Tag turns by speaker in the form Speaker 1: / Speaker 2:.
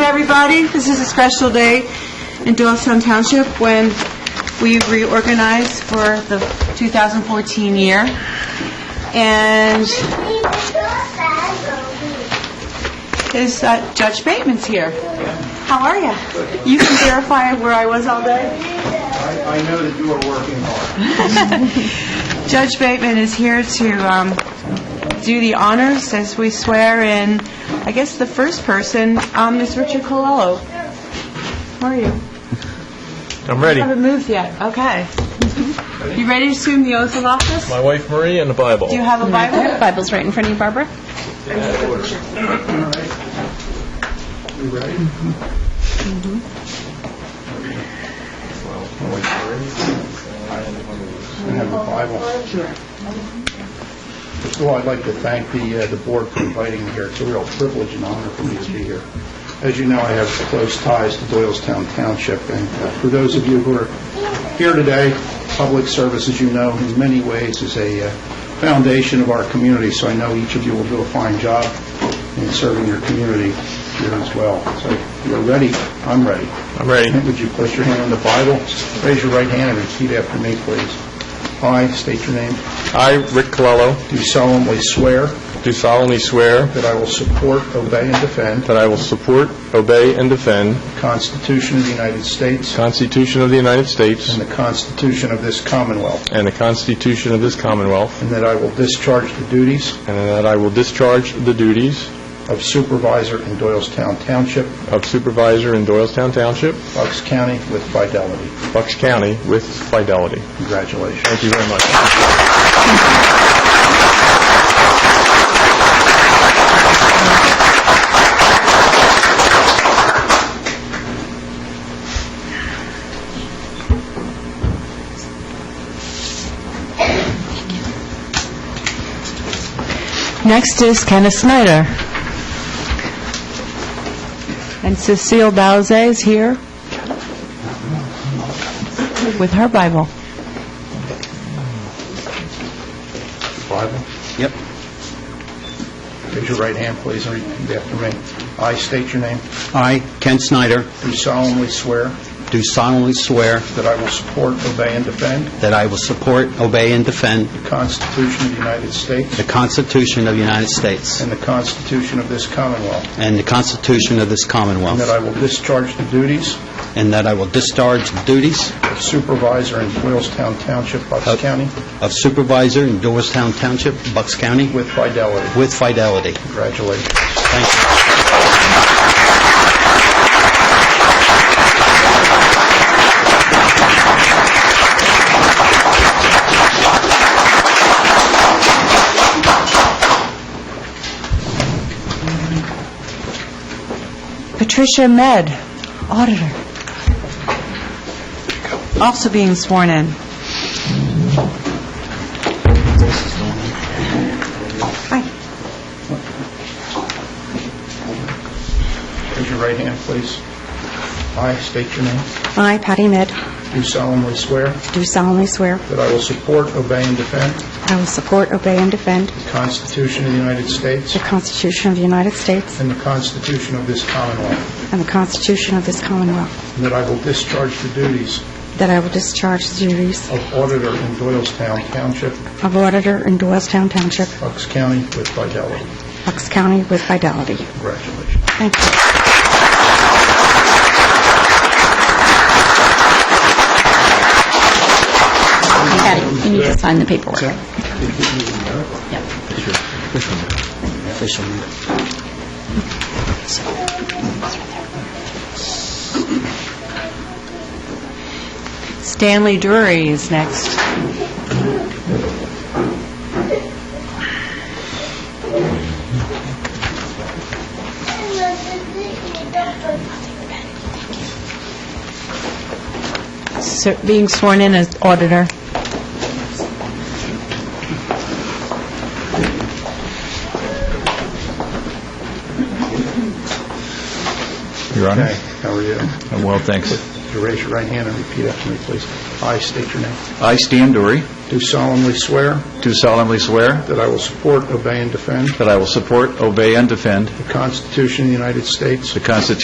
Speaker 1: everybody. This is a special day in Doylestown Township when we reorganized for the 2014 year. And is uh, Judge Bateman's here. How are you? You can verify where I was all day?
Speaker 2: I I know that you are working hard.
Speaker 1: Judge Bateman is here to um, do the honors as we swear in, I guess the first person um, is Richard Colello. How are you?
Speaker 3: I'm ready.
Speaker 1: Haven't moved yet, okay. You ready to assume the oath of office?
Speaker 3: My wife Marie and the Bible.
Speaker 1: Do you have a Bible?
Speaker 4: Bible's right in front of you, Barbara.
Speaker 2: You ready? I have a Bible. Sure. First of all, I'd like to thank the uh, the board for inviting me here. It's a real privilege and honor for me to be here. As you know, I have close ties to Doylestown Township, and uh, for those of you who are here today, public service, as you know, in many ways is a uh, foundation of our community, so I know each of you will do a fine job in serving your community here as well. So if you're ready, I'm ready.
Speaker 3: I'm ready.
Speaker 2: Would you place your hand on the Bible, raise your right hand, and repeat after me, please. I state your name.
Speaker 3: I, Rick Colello,
Speaker 2: Do solemnly swear
Speaker 3: do solemnly swear
Speaker 2: that I will support, obey, and defend
Speaker 3: that I will support, obey, and defend
Speaker 2: the Constitution of the United
Speaker 3: the
Speaker 2: States
Speaker 3: Constitution of the United States
Speaker 2: and the Constitution of this Commonwealth,
Speaker 3: and the Constitution of this Commonwealth,
Speaker 2: and that I will discharge the duties
Speaker 3: and that I will discharge the duties
Speaker 2: of supervisor in Doylestown Township,
Speaker 3: of supervisor in Doylestown Township,
Speaker 2: Bucks County, with fidelity.
Speaker 3: Bucks County, with fidelity.
Speaker 2: Congratulations.
Speaker 3: Thank you very much.
Speaker 1: Next is Kenneth Snyder. And Cecile Dowse is here with her Bible.
Speaker 2: Bible? Yep. Raise your right hand, please, and repeat after me. I state your name.
Speaker 5: I, Ken Snyder,
Speaker 2: Do solemnly swear
Speaker 5: do solemnly swear
Speaker 2: that I will support, obey, and defend
Speaker 5: that I will support, obey, and defend
Speaker 2: the Constitution of the United States
Speaker 5: the Constitution of the United States
Speaker 2: and the Constitution of this Commonwealth,
Speaker 5: and the Constitution of this
Speaker 2: and that
Speaker 5: Commonwealth,
Speaker 2: I will discharge the duties
Speaker 5: and that I will discharge the duties
Speaker 2: of supervisor in Doylestown Township, Bucks
Speaker 5: Of-
Speaker 2: County,
Speaker 5: of supervisor in Doylestown Township, Bucks County,
Speaker 2: with fidelity.
Speaker 5: with fidelity.
Speaker 2: Congratulations.
Speaker 5: Thank you.
Speaker 1: Patricia Med, auditor, also being sworn in. Hi.
Speaker 2: Raise your right hand, please. I state your name.
Speaker 6: I, Patty Mead,
Speaker 2: Do solemnly swear
Speaker 6: do solemnly swear
Speaker 2: that I will support, obey, and defend
Speaker 6: I will support, obey, and defend
Speaker 2: the Constitution of the United States
Speaker 6: the Constitution of the United States
Speaker 2: and the Constitution of this Commonwealth,
Speaker 6: and the Constitution of this Commonwealth,
Speaker 2: and that I will discharge the duties
Speaker 6: that I will discharge the duties
Speaker 2: of auditor in Doylestown Township,
Speaker 6: of auditor in Doylestown Township,
Speaker 2: Bucks County, with fidelity.
Speaker 6: Bucks County, with fidelity.
Speaker 2: Congratulations.
Speaker 6: Thank you.
Speaker 4: Patty, you need to sign the paperwork.
Speaker 5: Official meeting.
Speaker 1: Stanley Drury is next. Sir- Being sworn in as auditor.
Speaker 7: Your Honor?
Speaker 2: Okay, how are you?
Speaker 7: I'm Well, thanks.
Speaker 2: Would you raise your right hand and repeat after me, please? I state your name.
Speaker 7: I, Stan Dury,
Speaker 2: Do solemnly swear
Speaker 7: do solemnly swear
Speaker 2: that I will support, obey, and defend
Speaker 7: that I will support, obey, and defend
Speaker 2: the Constitution of the United States
Speaker 7: the Constitution